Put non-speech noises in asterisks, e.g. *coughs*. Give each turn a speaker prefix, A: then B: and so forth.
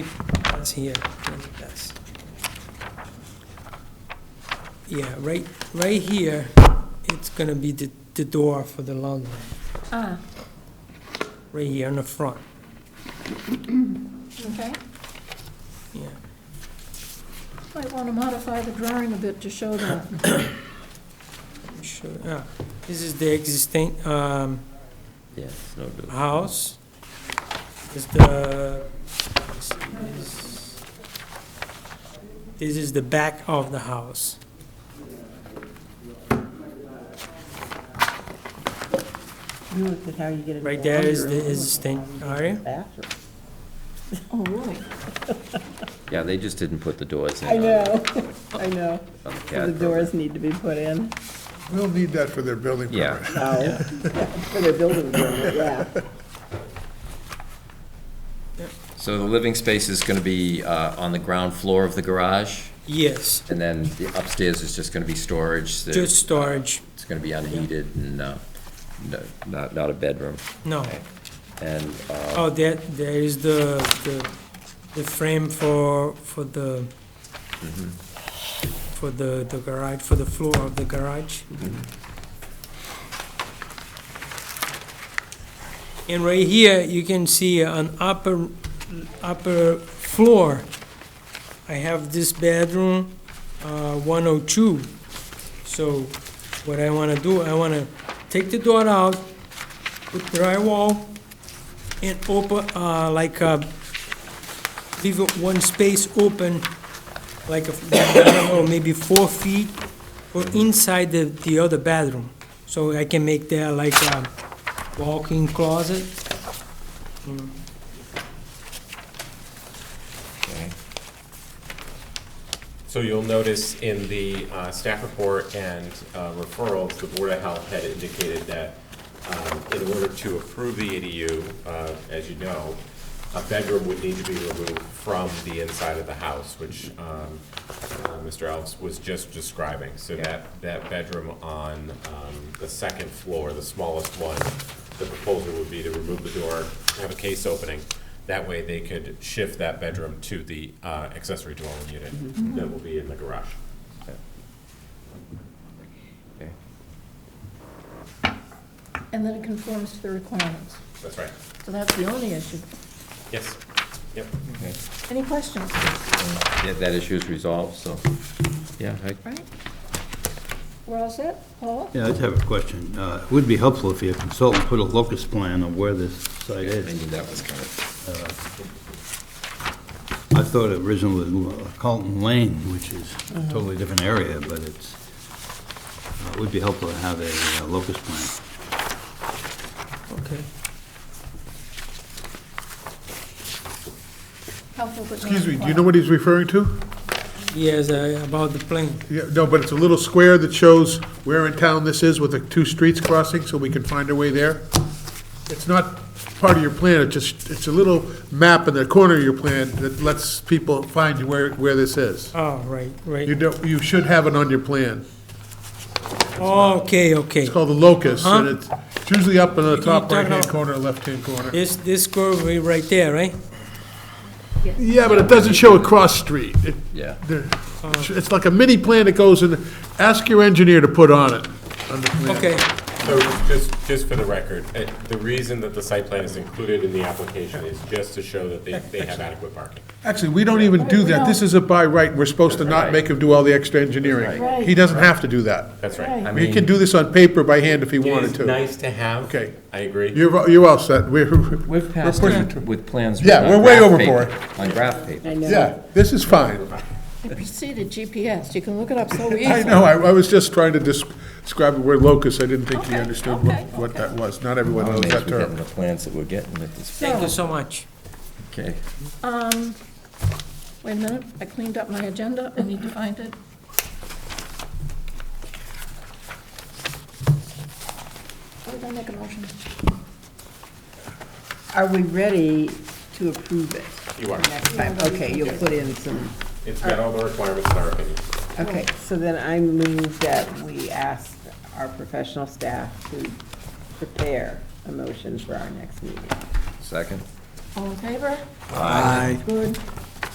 A: that's here, I think that's. Yeah, right, right here, it's gonna be the, the door for the laundry,
B: Ah,
A: right here in the front,
B: okay.
A: yeah.
B: Might want to modify the drawing a bit to show that.
A: Sure, yeah. Ah, This is the existing, um,
C: Yes, no do.
A: house. Is the, this is the back of the house.
D: You looked at how you get it.
A: Right there is the existing area.
B: *coughs* Oh, really?
C: Yeah, they just didn't put the doors in.
D: I
C: on the-
D: know, *laughs* I know.
C: on the CAD
D: The
C: program.
D: doors need to be put in.
E: We'll need that for their building
C: Yeah,
E: permit.
D: Oh. For the building permit, yeah.
C: so the living space is gonna be uh, on the ground floor of the garage,
A: Yes,
C: and then the upstairs is just gonna be storage. that
A: just storage,
C: It's gonna be unheated and, uh, no- not, not a bedroom.
A: no.
C: And, uh,
A: Oh, there, there is the, the, the frame for, for the, for the, the garage, for the floor of the garage. And right here, you can see an upper, upper floor. I have this bedroom, uh, one oh two. So what I wanna do, I wanna take the door out, put drywall, and open, uh, like, uh, leave it one space open, like, a- *coughs* I don't know, maybe four feet, or inside the, the other bathroom. So I can make that like a walk-in closet.
F: So you'll notice in the uh, staff report and uh, referrals, the Board of Health had indicated that um, in order to approve the ADU, uh, as you know, a bedroom would need to be removed from the inside of the house, which um, uh, Mr. Elves was just describing. So that, that bedroom on um, the second floor, the smallest one, the proposal would be to remove the door, have a case opening. That way, they could shift that bedroom to the uh, accessory dwelling
E: Mm-hmm.
F: unit that will be in the garage.
C: okay.
B: And then it conforms to the requirements.
F: That's right.
B: So that's the only issue.
F: Yes. Yep.
B: Any questions?
C: Yeah, that issue is resolved, so, yeah, I
B: Right? We're all set? Paul?
G: Yeah, I just have a question. Uh, It would be helpful if your consultant put a locus plan of where this site
C: I
G: is.
C: knew that was coming.
G: I thought originally it was Carlton Lane, which is a totally different area, but it's, uh, it would be helpful to have a uh, locus plan.
A: Okay.
B: Helpful but not
E: Excuse me, do you know
B: required.
E: what he's referring to?
A: Yes, uh, about the plane.
E: Yeah, No, but it's a little square that shows where in town this is with the two streets crossing, so we can find our way there. It's not part of your plan, it just, it's a little map in the corner of your plan that lets people find where, where this is.
A: Oh, right,
E: You
A: right.
E: don't, you should have it on your plan.
A: Okay, okay.
E: It's called the locus, and
A: Huh?
E: it's it's usually up in the
A: You
E: top
A: talking
E: right-hand
A: about-
E: corner, left-hand corner.
A: This, this curve right- right there, right?
E: Yeah, but it doesn't show a cross street. It-
C: Yeah.
E: there- It's it's like a mini plan that goes in, ask your engineer to put on it, on the plan.
A: Okay,
F: So just, just for the record, uh, the reason that the site plan is included in the application is just to show that they, they have adequate parking.
E: Actually, we don't even do that. This is a by right. We're supposed to not make him do all the extra engineering.
B: Right.
E: He doesn't have to do that.
F: That's right.
B: Right.
C: I
E: He
C: mean,
E: can do this on paper by hand if he
F: It
E: wanted
F: is
E: to.
F: nice to have.
E: Okay.
F: I agree.
E: You're, you're all set. We're,
C: we've passed
E: pushing
C: it with plans.
E: Yeah,
C: on
E: we're way
C: graph
E: overboard.
C: paper- On graph paper.
E: yeah, this is fine.
B: It preceded GPS. You can look it up
E: *laughs*
B: so easily.
E: I know, I, I was just trying to dis- describe the word locus. I didn't think he
B: Okay,
E: understood what,
B: okay,
E: what
B: okay.
E: that was. Not everyone
C: I'm
E: knows
C: amazed
E: Oh, that
C: we're getting
E: term.
C: the plans that we're getting at this
A: thank
C: point.
A: you so much.
C: Okay.
B: Um, wait a minute, I cleaned up my agenda, I need to find it. What did I make a motion?
D: Are we ready to approve it
F: You are.
D: next time? Okay, you'll put in some,
F: It's got all the requirements in our opinion.
D: okay, so then I move that we ask our professional staff to prepare a motion for our next meeting.
C: Second?
B: All in favor?
C: Aye.
B: Good.